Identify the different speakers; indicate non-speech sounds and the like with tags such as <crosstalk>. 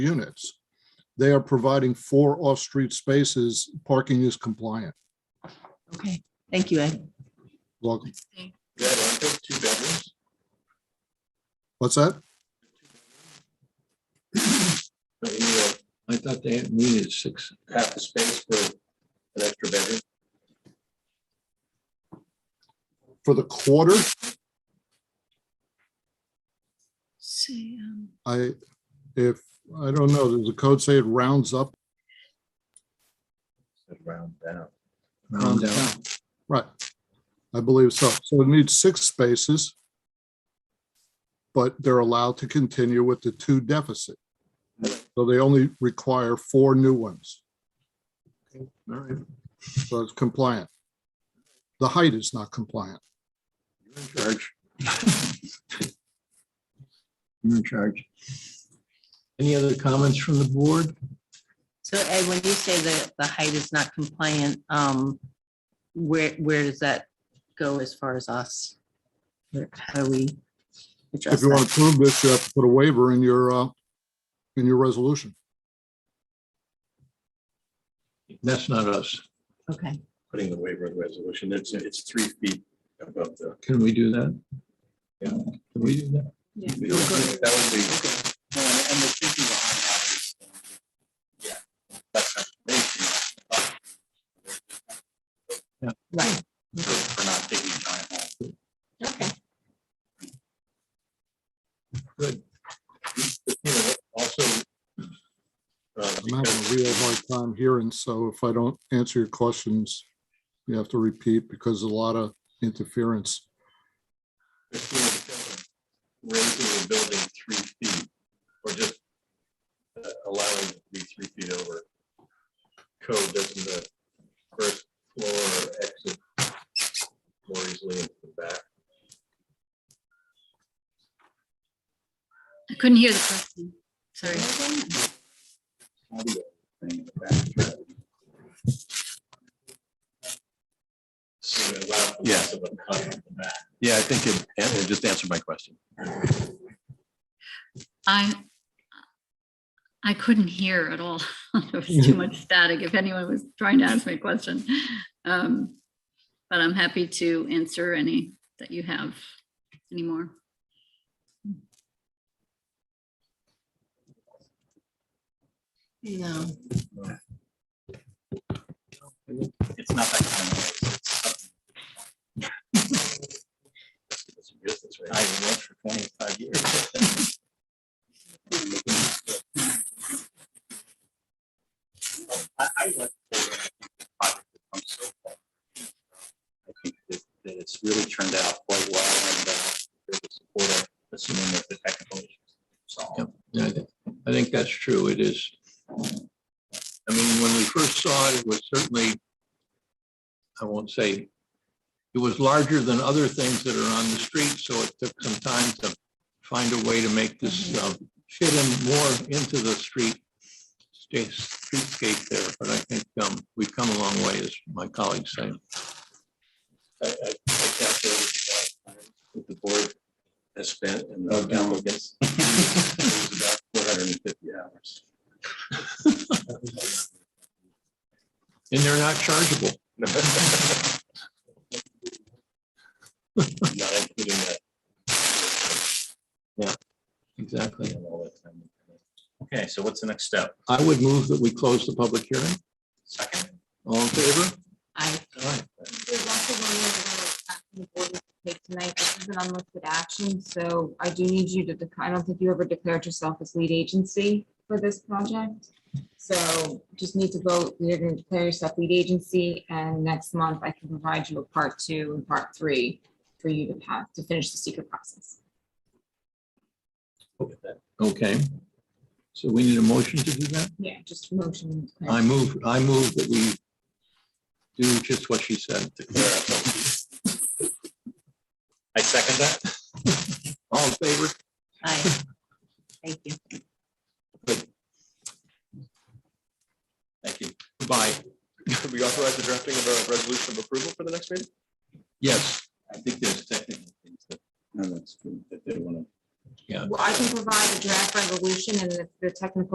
Speaker 1: units. They are providing four off-street spaces. Parking is compliant.
Speaker 2: Okay, thank you, Ed.
Speaker 1: Welcome.
Speaker 3: Yeah, I think two bedrooms.
Speaker 1: What's that?
Speaker 3: but you know,
Speaker 4: I thought they needed six.
Speaker 3: Half the space for an extra bedroom.
Speaker 1: For the quarter,
Speaker 2: See, um,
Speaker 1: I, if, I don't know, does the code say it rounds up?
Speaker 3: Round down.
Speaker 4: round out.
Speaker 1: Right. I believe so. So it needs six spaces. But they're allowed to continue with the two deficit. So they only require four new ones.
Speaker 3: All right.
Speaker 1: So it's compliant. The height is not compliant.
Speaker 4: You're in charge. You're in charge. Any other comments from the board?
Speaker 2: so Ed, when you say that the height is not compliant, um, where, where does that go as far as us? Where- How do we
Speaker 1: If
Speaker 2: address
Speaker 1: you want
Speaker 2: that?
Speaker 1: to prove this, you have to put a waiver in your, uh, in your resolution.
Speaker 4: That's not us.
Speaker 2: Okay,
Speaker 3: Putting the waiver in the resolution, it's, it's three feet above the.
Speaker 4: Can we do that?
Speaker 3: Yeah.
Speaker 4: Can we do that?
Speaker 2: Yeah.
Speaker 3: That would be. No, and and the thinking behind that is. um, Yeah. that's not an issue, but
Speaker 2: right,
Speaker 3: For for not taking a giant home.
Speaker 2: okay.
Speaker 3: You know, Also. uh,
Speaker 1: I'm having a real hard time hearing, so if I don't answer your questions, you have to repeat because a lot of interference.
Speaker 3: Christina Tillman, raising the building three feet, or just uh, allowing it to be three feet over. Code doesn't the first floor exit more easily into the back.
Speaker 5: I couldn't hear the question. Sorry.
Speaker 3: patio thing in the back. So it allows for less of a cut in the back.
Speaker 6: Yeah, I think it, it just answered my question.
Speaker 5: I, I couldn't hear at all. <laughs> There was too much static if anyone was trying to ask me a question. Um, But I'm happy to answer any that you have anymore.
Speaker 2: No,
Speaker 3: It's not that kind of noise. It's something. It's a business, right? I've worked for twenty-five years. I, I like. I'm so. I think that, that it's really turned out quite well and, uh, there's support of assuming that the technical issues. So,
Speaker 4: Yep. Yeah, I think- I think that's true. It is. I mean, when we first saw it, it was certainly, I won't say, it was larger than other things that are on the street, so it took some time to find a way to make this uh, fit in more into the street sta- streetscape there. But I think um, we've come a long way, as my colleagues say.
Speaker 3: I, I, I calculated the amount of time that the board has spent and the applicants. It was about four hundred and fifty hours.
Speaker 4: And they're not chargeable.
Speaker 3: Not including that.
Speaker 4: Exactly.
Speaker 3: and all that time. Okay, so what's the next step?
Speaker 4: I would move that we close the public hearing.
Speaker 3: Second?
Speaker 4: All in favor?
Speaker 2: I,
Speaker 4: Aye.
Speaker 7: There's also one more little action the board needs to take tonight. This is an unlisted action, so I do need you to, dec- I don't think you ever declared yourself as lead agency for this project. So just need to vote, you're going to declare yourself lead agency, and next month I can provide you a part two and part three for you to pass, to finish the secret process.
Speaker 4: Okay. So we need a motion to do that?
Speaker 7: Yeah, just motion.
Speaker 4: I move, I move that we do just what she said.
Speaker 3: I second that.
Speaker 4: All in favor?
Speaker 2: I, <laughs> thank you.
Speaker 3: Thank you.
Speaker 4: Bye.
Speaker 3: Could we authorize the drafting of a resolution of approval for the next meeting?
Speaker 4: Yes.
Speaker 3: I think there's technical things that, no, that's good, that they want to
Speaker 7: Well, I can provide a draft resolution and if the technical